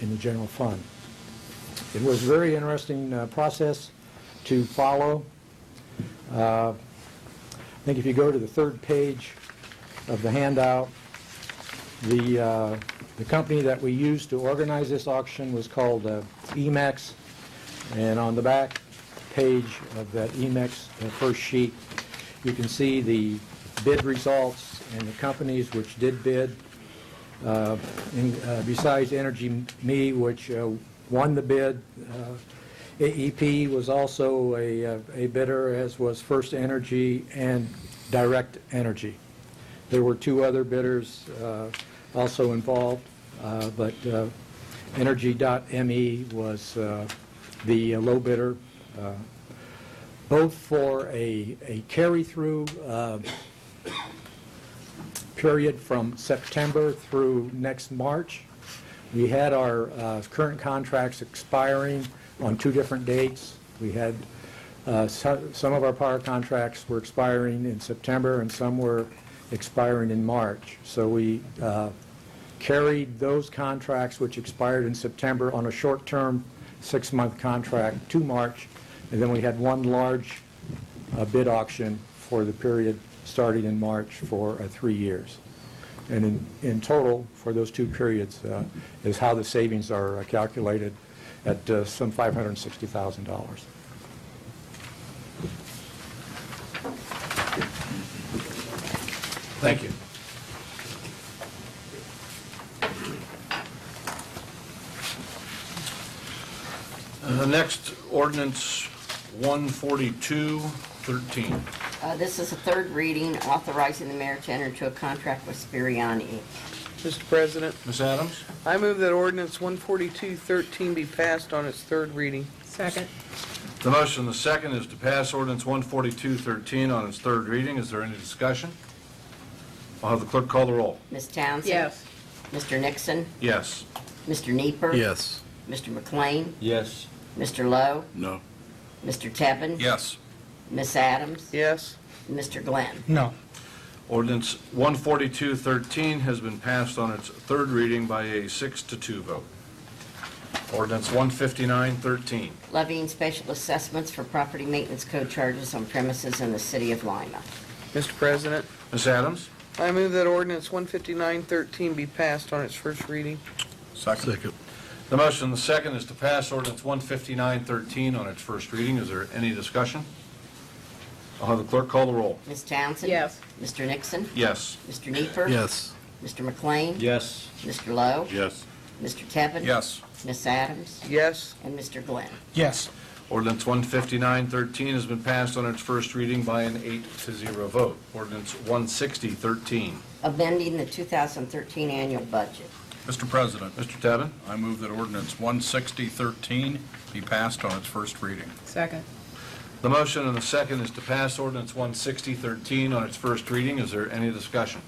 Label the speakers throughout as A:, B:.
A: in the general fund. It was a very interesting uh, process to follow. Uh, I think if you go to the third page of the handout, the, uh, the company that we used to organize this auction was called uh, EMAX, and on the back page of that EMAX, uh, first sheet, you can see the bid results and the companies which did bid. Uh, in- uh, Besides Energy Me, which uh, won the bid, uh, AEP was also a uh, a bidder, as was First Energy and Direct Energy. There were two other bidders uh, also involved, uh, but uh, Energy.me was uh, the low bidder, uh, both for a a carry-through uh, period from September through next March. We had our uh, current contracts expiring on two different dates. We had, uh, so- some of our power contracts were expiring in September and some were expiring in March. So we uh, carried those contracts which expired in September on a short-term, six-month contract to March. And then we had one large a bid auction for the period starting in March for uh, three years. And in, in total, for those two periods, uh, is how the savings are uh, calculated at uh, some $560,000.
B: Thank you. Uh, Next, ordinance 142-13.
C: Uh, This is a third reading authorizing the mayor to enter into a contract with Spirion Inc.
D: Mr. President,
B: Ms. Adams?
D: I move that ordinance 142-13 be passed on its third reading.
E: Second.
B: The motion, the second, is to pass ordinance 142-13 on its third reading. Is there any discussion? I'll have the clerk call the roll.
C: Ms. Townsend?
E: Yes.
C: Mr. Nixon?
B: Yes.
C: Mr. Nieper.
F: Yes.
C: Mr. McLean?
B: Yes.
C: Mr. Lowe?
F: No.
C: Mr. Tevin?
B: Yes.
C: Ms. Adams?
D: Yes.
C: Mr. Glenn?
G: No.
B: Ordinance 142-13 has been passed on its third reading by a six to two vote. Ordinance 159-13.
C: Levying special assessments for property maintenance code charges on premises in the city of Lima.
D: Mr. President,
B: Ms. Adams?
D: I move that ordinance 159-13 be passed on its first reading.
F: Second.
B: The motion, the second, is to pass ordinance 159-13 on its first reading. Is there any discussion? I'll have the clerk call the roll.
C: Ms. Townsend?
E: Yes.
C: Mr. Nixon?
B: Yes.
C: Mr. Nieper.
F: Yes.
C: Mr. McLean?
B: Yes.
C: Mr. Lowe?
F: Yes.
C: Mr. Tevin?
B: Yes.
C: Ms. Adams?
D: Yes.
C: And Mr. Glenn?
G: Yes.
B: Ordinance 159-13 has been passed on its first reading by an eight to zero vote. Ordinance 160-13.
C: Amending the 2013 annual budget.
H: Mr. President,
B: Mr. Tevin?
H: I move that ordinance 16013 be passed on its first reading.
E: Second.
B: The motion and the second is to pass ordinance 160-13 on its first reading. Is there any discussion?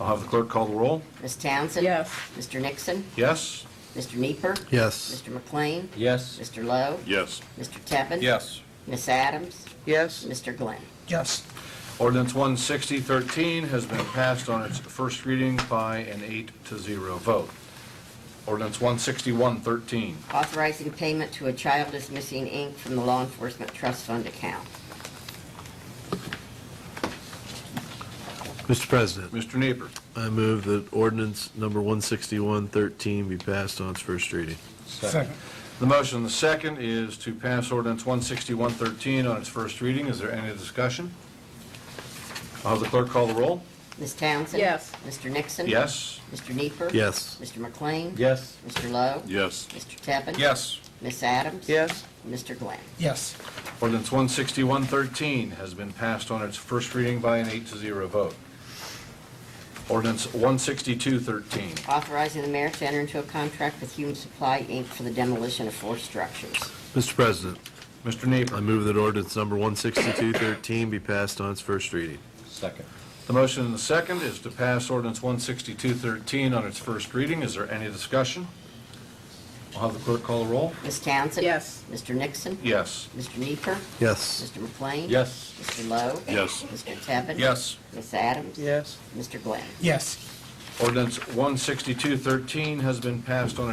B: I'll have the clerk call the roll.
C: Ms. Townsend?
E: Yes.
C: Mr. Nixon?
B: Yes?
C: Mr. Nieper.
F: Yes.
C: Mr. McLean?
B: Yes.
C: Mr. Lowe?
H: Yes.
C: Mr. Tevin?
H: Yes.
C: Ms. Adams?
D: Yes.
C: Mr. Glenn?
G: Yes.
B: Ordinance 160-13 has been passed on its first reading by an eight to zero vote. Ordinance 161-13.
C: Authorizing payment to a child is missing, Inc. from the Law Enforcement Trust Fund account.
F: Mr. President,
B: Mr. Nieper.
F: I move that ordinance number 16113 be passed on its first reading.
G: Second.
B: The motion, the second, is to pass ordinance 161-13 on its first reading. Is there any discussion? I'll have the clerk call the roll.
C: Ms. Townsend?
E: Yes.
C: Mr. Nixon?
B: Yes?
C: Mr. Nieper.
F: Yes.
C: Mr. McLean?
B: Yes.
C: Mr. Lowe?
H: Yes.
C: Mr. Tevin?
B: Yes.
C: Ms. Adams?
D: Yes.
C: Mr. Glenn?
G: Yes.
B: Ordinance 16113 has been passed on its first reading by an eight to zero vote. Ordinance 16213.
C: Authorizing the mayor to enter into a contract with Human Supply, Inc. for the demolition of four structures.
F: Mr. President,
B: Mr.
F: I
B: Nieper.
F: move that ordinance number 16213 be passed on its first reading.
B: Second. The motion and the second is to pass ordinance 16213 on its first reading. Is there any discussion? I'll have the clerk call the roll.
C: Ms. Townsend?
E: Yes.
C: Mr. Nixon?
B: Yes.
C: Mr. Nieper.
F: Yes.
C: Mr. McLean?
B: Yes.
C: Mr. Lowe?
H: Yes.
C: Mr. Tevin?
B: Yes.
C: Ms. Adams?
D: Yes.
C: Mr. Glenn?
G: Yes.
B: Ordinance 16213 has been passed on